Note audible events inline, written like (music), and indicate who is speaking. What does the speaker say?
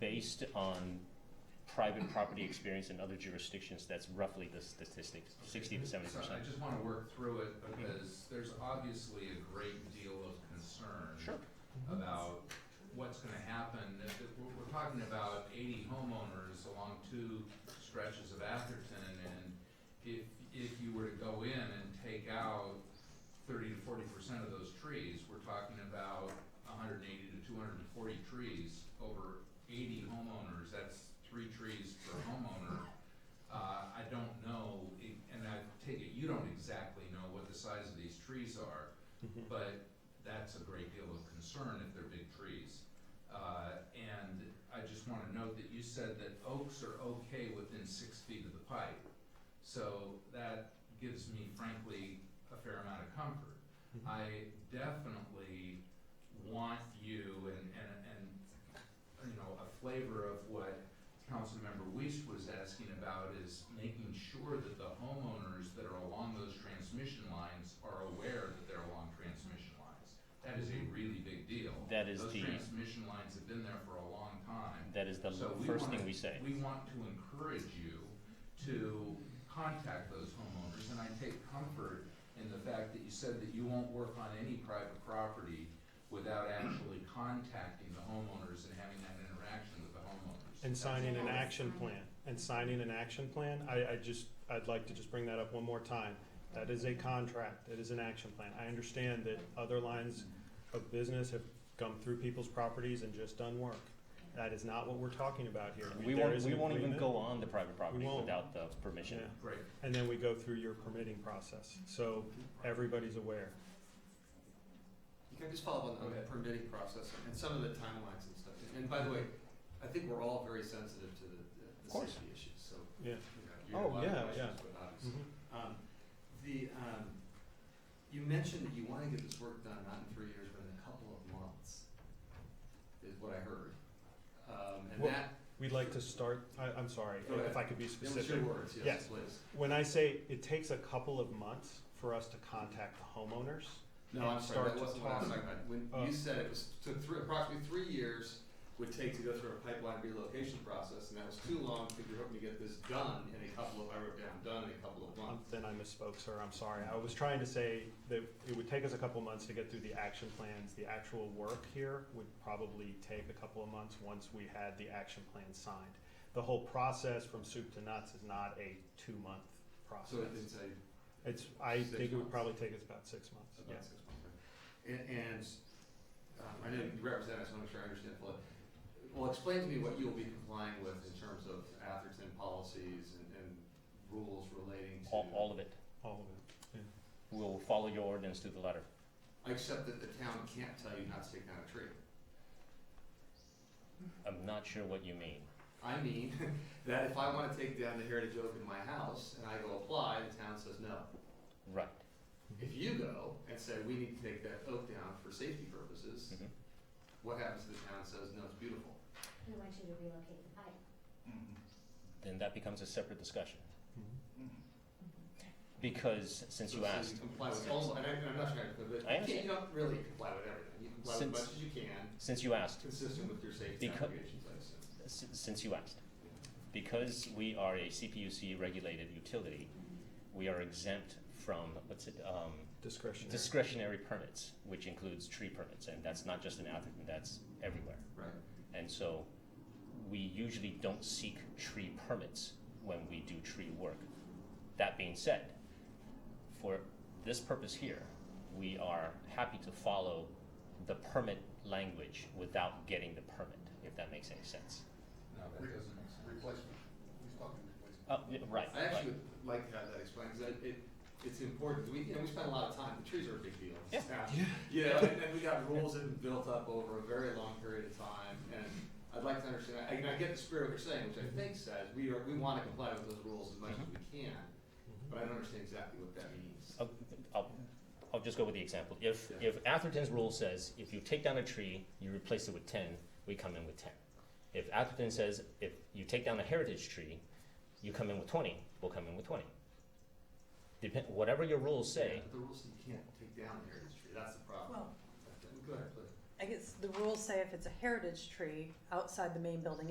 Speaker 1: based on private property experience in other jurisdictions, that's roughly the statistics, sixty to seventy
Speaker 2: So I
Speaker 1: percent.
Speaker 2: just wanna work through it because there's obviously a great deal of concern
Speaker 1: Sure,
Speaker 2: about what's gonna happen. If it- we're, we're talking about eighty homeowners along two stretches of Atherton and if, if you were to go in and take out thirty to forty percent of those trees, we're talking about hundred and eighty to two hundred and forty trees over eighty homeowners, that's three trees per homeowner. Uh, I don't know, i- and I take it, you don't exactly know what the size of these trees are, but that's a great deal of concern if they're big trees. Uh, and I just wanna note that you said that oaks are okay within six feet of the pipe. So that gives me frankly a fair amount of comfort. I definitely want you and, and, and, you know, a flavor of what Councilmember Weiss was asking about is making sure that the homeowners that are along those transmission lines are aware that they're along transmission lines. That is a really big deal.
Speaker 1: That is the-
Speaker 2: Those transmission lines have been there for a long time.
Speaker 1: that is the
Speaker 2: So we
Speaker 1: first thing
Speaker 2: wanna-
Speaker 1: we say.
Speaker 2: We want to encourage you to contact those homeowners, and I take comfort in the fact that you said that you won't work on any private property without actually contacting the homeowners and having that interaction with the homeowners.
Speaker 3: And signing an action plan, and signing an action plan, I, I just, I'd like to just bring that up one more time. That is a contract, it is an action plan. I understand that other lines of business have come through people's properties and just done work. That is not what we're talking about here.
Speaker 1: We
Speaker 3: There
Speaker 1: won't,
Speaker 3: is
Speaker 1: we
Speaker 3: an
Speaker 1: won't even
Speaker 3: agreement,
Speaker 1: go on the private property
Speaker 3: won't.
Speaker 1: without the permission.
Speaker 3: Yeah.
Speaker 2: Great,
Speaker 3: And then we go through your permitting process, so everybody's aware.
Speaker 4: Can I just follow up on
Speaker 2: Go
Speaker 4: the
Speaker 2: ahead.
Speaker 4: permitting process and some of the timelines and stuff? And- And by the way, I think we're all very sensitive to the, the-
Speaker 1: Of
Speaker 4: the
Speaker 1: course.
Speaker 4: safety issues, so,
Speaker 3: Yeah.
Speaker 4: you know, you have a
Speaker 3: Oh,
Speaker 4: lot of
Speaker 3: yeah,
Speaker 4: questions, but obviously.
Speaker 3: Mhm.
Speaker 4: Um, the, um, you mentioned that you wanna get this work done, not in three years, but in a couple of months, is what I heard. Um, and
Speaker 3: Well,
Speaker 4: that,
Speaker 3: We'd like to start, I, I'm sorry,
Speaker 4: Go ahead.
Speaker 3: if I could be
Speaker 4: that
Speaker 3: specific.
Speaker 4: was your words, yes,
Speaker 3: Yes.
Speaker 4: please.
Speaker 3: When I say it takes a couple of months for us to contact the homeowners,
Speaker 4: No, I'm sorry,
Speaker 3: start
Speaker 4: that
Speaker 3: to
Speaker 4: wasn't what I was
Speaker 3: talk.
Speaker 4: talking about. When
Speaker 3: Oh.
Speaker 4: you said it was, took three, approximately three years would take to go through a pipeline relocation process, and that was too long, because you're hoping to get this done in a couple of, I wrote down, done in a couple of
Speaker 3: Um,
Speaker 4: months.
Speaker 3: Then I misspoke, sir, I'm sorry. I was trying to say that it would take us a couple months to get through the action plans. The actual work here would probably take a couple of months once we had the action plan signed. The whole process from soup to nuts is not a two-month
Speaker 4: So it
Speaker 3: process.
Speaker 4: didn't say
Speaker 3: It's, I
Speaker 4: Six
Speaker 3: think it would
Speaker 4: months.
Speaker 3: probably take us about six months,
Speaker 4: about
Speaker 3: yes.
Speaker 4: six months, right? And, and, um, I know you represent, us, so I'm sure I understand fully. Well, explain to me what you'll be complying with in terms of Atherton policies and, and rules relating to.
Speaker 1: All, all of it.
Speaker 3: All of it.
Speaker 1: We'll follow your ordinance to the letter.
Speaker 4: Except that the town can't tell you not to take down a tree.
Speaker 1: I'm not sure what you mean.
Speaker 4: I mean, (laughs) that if I wanna take down the heritage oak in my house and I go apply, the town says no.
Speaker 1: Mm-hmm. Right.
Speaker 4: If you go and say, we need to take that oak down for safety purposes,
Speaker 1: Mhm.
Speaker 4: what happens if the town says, no, it's beautiful?
Speaker 5: We want you to relocate the pipe.
Speaker 1: Then that becomes a separate discussion.
Speaker 3: Mhm.
Speaker 1: Because, since
Speaker 4: So-
Speaker 1: you
Speaker 4: so
Speaker 1: asked,
Speaker 4: comply with all, and I, and I'm not trying to, but
Speaker 1: I
Speaker 4: you can't, you don't really comply with everything, you comply with as
Speaker 1: Since-
Speaker 4: much as you can,
Speaker 1: since you asked,
Speaker 4: consistent with your safety
Speaker 1: Becau-
Speaker 4: obligations, I assume.
Speaker 1: s- since you asked, because we are a CPUC regulated utility, we are exempt from, what's it, um,
Speaker 3: Discretionary.
Speaker 1: discretionary permits, which includes tree permits, and that's not just in Atherton, that's everywhere.
Speaker 4: Right.
Speaker 1: And so we usually don't seek tree permits when we do tree work. That being said, for this purpose here, we are happy to follow the permit language without getting the permit, if that makes any sense.
Speaker 2: no, that doesn't make sense.
Speaker 6: Replacement, he's talking replacement.
Speaker 1: Uh, yeah, right,
Speaker 4: I
Speaker 1: right.
Speaker 4: actually would like to have that explained, cause I- it, it's important, we, you know, we spend a lot of time, the trees are a big deal.
Speaker 1: Yeah.
Speaker 4: Yeah. You know, and, and we got rules that have been built up over a very long period of time, and I'd like to understand, I, and I get the spirit of what you're saying, which I think says, we are, we wanna comply with those rules as much as we can, but I don't understand exactly what that means.
Speaker 1: I'll, I'll, I'll just go with the example. If,
Speaker 4: Yeah.
Speaker 1: if Atherton's rule says, if you take down a tree, you replace it with ten, we come in with ten. If Atherton says, if you take down a heritage tree, you come in with twenty, we'll come in with twenty. Depend, whatever your rules say,
Speaker 4: Yeah, but The rules say you can't take down the heritage tree, that's the problem.
Speaker 7: Well,
Speaker 4: Go ahead, please.
Speaker 7: I guess the rules say if it's a heritage tree outside the main building